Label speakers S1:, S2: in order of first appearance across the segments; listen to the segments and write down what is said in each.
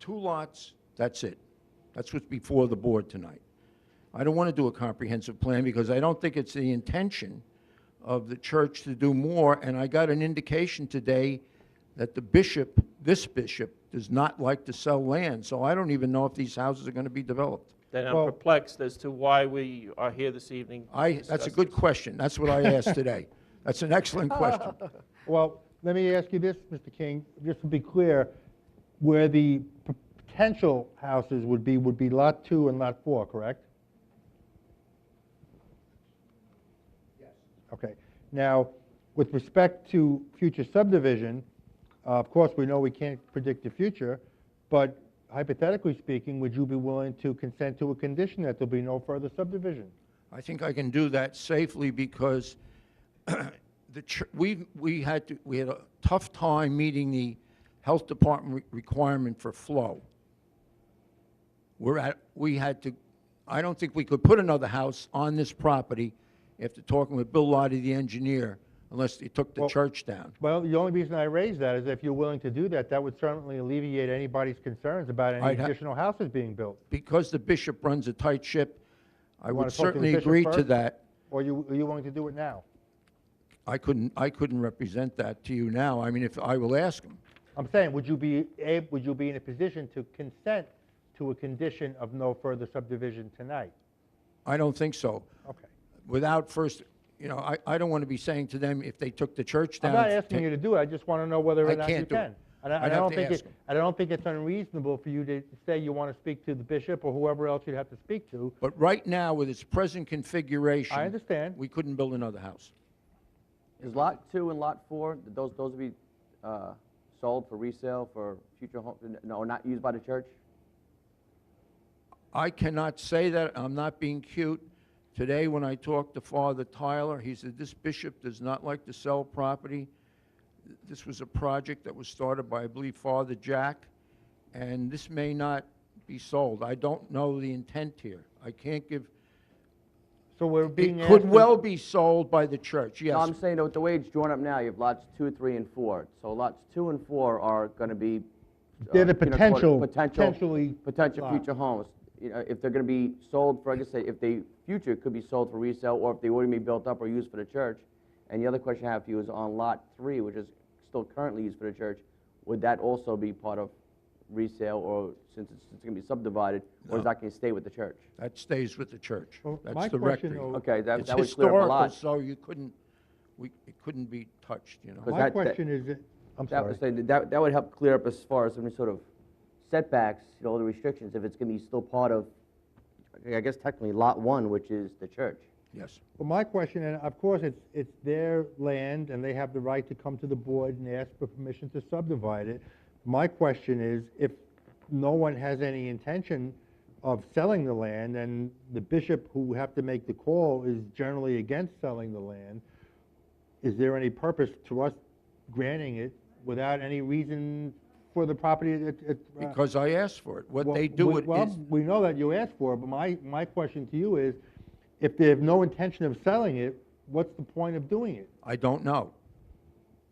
S1: two lots, that's it. That's what's before the board tonight. I don't want to do a comprehensive plan because I don't think it's the intention of the church to do more, and I got an indication today that the bishop, this bishop, does not like to sell land, so I don't even know if these houses are going to be developed.
S2: Then I'm
S3: Well-
S2: perplexed as to why we are here this evening. to
S1: I, that's
S2: discuss
S1: a good
S2: this. Oh.
S1: question. That's what I asked today. That's an excellent question.
S3: Well, let me ask you this, Mr. King, just to be clear, where the p- potential houses would be, would be Lot 2 and Lot 4, correct? Yes. Okay. Now, with respect to future subdivision, uh, of course, we know we can't predict the future, but hypothetically speaking, would you be willing to consent to a condition that there'll be no further subdivision?
S1: I think I can do that safely because the, chur- we, we had to, we had a tough time meeting the health department re- requirement for flow. We're at, we had to, I don't think we could put another house on this property after talking with Bill Lottie, the engineer, unless they took the
S3: Well-
S1: church down.
S3: Well, the only reason I raise that is if you're willing to do that, that would certainly alleviate anybody's concerns about any
S1: I'd ha-
S3: additional houses being built.
S1: Because the bishop runs a tight ship, I
S3: wanna
S1: would
S3: talk to the
S1: certainly
S3: bishop
S1: agree to
S3: first?
S1: that.
S3: Or you, are you willing to do it now?
S1: I couldn't, I couldn't represent that to you now. I mean, if, I will ask him.
S3: I'm saying, would you be ab, would you be in a position to consent to a condition of no further subdivision tonight?
S1: I don't think so.
S3: Okay.
S1: Without first, you know, I, I don't want to be saying to them if they took the church
S3: I'm
S1: down.
S3: not asking you to do it, I just want to know whether
S1: I
S3: or not you
S1: can't do it.
S3: can. And I-
S1: I'd
S3: and I
S1: have
S3: don't
S1: to
S3: think
S1: ask
S3: it,
S1: him.
S3: I don't think it's unreasonable for you to say you want to speak to the bishop or whoever else you'd have to speak to.
S1: But right now, with its present configuration.
S3: I understand.
S1: We couldn't build another house.
S4: Is lot two and lot four, did those, those be uh, sold for resale for future home, no, not used by the church?
S1: I cannot say that, I'm not being cute. Today, when I talked to Father Tyler, he said, this bishop does not like to sell property. This was a project that was started by, I believe, Father Jack, and this may not be sold. I don't know the intent here. I can't give,
S3: So we're being
S1: it
S3: asked.
S1: could
S3: to-
S1: well be sold by the church, yes.
S4: No, I'm saying that with the way it's drawn up now, you have lots two, three, and four. So lots two and four are going to be. uh,
S3: They're the
S4: you know, quote,
S3: potential-
S4: potential-
S3: potentially
S4: Potential
S3: lot.
S4: future homes. You know, if they're going to be sold, for, like I say, if they, future could be sold for resale, or if they were to be built up or used for the church. And the other question I have for you is on lot three, which is still currently used for the church, would that also be part of resale, or since it's, it's going to be subdivided, or is that going to stay with the church?
S1: That stays with the church.
S3: Well, my
S1: That's the
S3: question,
S1: rectory.
S3: though-
S4: Okay, that,
S1: It's
S4: that would clear up a
S1: historical,
S4: lot.
S1: so you couldn't, we, it couldn't be touched, you know?
S4: Because
S3: My
S4: that- that-
S3: question is, that- I'm
S4: That
S3: sorry.
S4: was, saying that- that, that would help clear up as far as any sort of setbacks, you know, the restrictions, if it's gonna be still part of, I guess technically lot one, which is the church.
S1: Yes.
S3: Well, my question, and of course, it's, it's their land, and they have the right to come to the board and ask for permission to subdivide it. My question is, if no one has any intention of selling the land, and the bishop who have to make the call is generally against selling the land, is there any purpose to us granting it without any reason for the property? It- it- uh,
S1: Because I asked for it. What
S3: well,
S1: they do
S3: we-
S1: it is.
S3: Well, we know that you asked for it, but my, my question to you is, if they have no intention of selling it, what's the point of doing it?
S1: I don't know.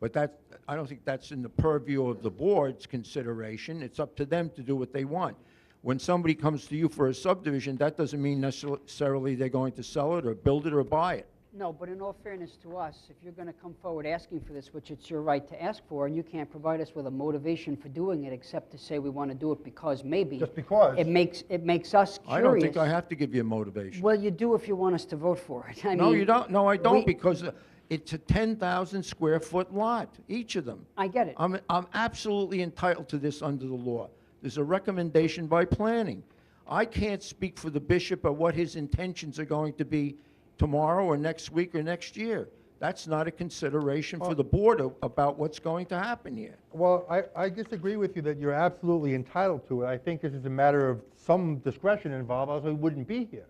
S1: But that, I don't think that's in the purview of the board's consideration. It's up to them to do what they want. When somebody comes to you for a subdivision, that doesn't mean necessarily they're going to sell it or build it or buy it.
S5: No, but in all fairness to us, if you're going to come forward asking for this, which it's your right to ask for, and you can't provide us with a motivation for doing it except to say we want to do it because maybe.
S3: Just because.
S5: It makes, it makes us curious.
S1: I don't think I have to give you a motivation.
S5: Well, you do if you want us to vote for it. I
S1: No,
S5: mean,
S1: you don't, no, I
S5: we-
S1: don't, because uh, it's a 10,000 square foot lot, each of them.
S5: I get it.
S1: I'm, I'm absolutely entitled to this under the law. There's a recommendation by planning. I can't speak for the bishop or what his intentions are going to be tomorrow or next week or next year. That's not a consideration for the board a- about what's going to happen here.
S3: Well, I, I disagree with you that you're absolutely entitled to it. I think this is a matter of some discretion involved, else we wouldn't be here.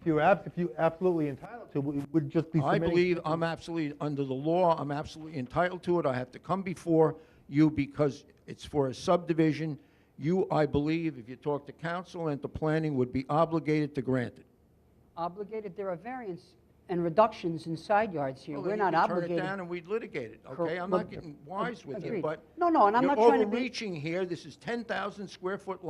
S3: If you ab, if you absolutely entitled to, it, we would just be
S1: I
S3: submitting.
S1: believe I'm absolutely, under the law, I'm absolutely entitled to it. I have to come before you because it's for a subdivision. You, I believe, if you talk to council and to planning, would be obligated to grant it.
S5: Obligated, there are variance and reductions in side yards here.
S1: Well,
S5: We're
S1: then
S5: not
S1: you can
S5: obligated.
S1: Turn it down and we'd litigate it,
S5: Cor-
S1: okay? I'm
S5: well,
S1: not getting wise with you,
S5: agreed.
S1: but.
S5: No, no, and I'm not trying to
S1: You're
S5: be-
S1: overreaching here. This is 10,000 square foot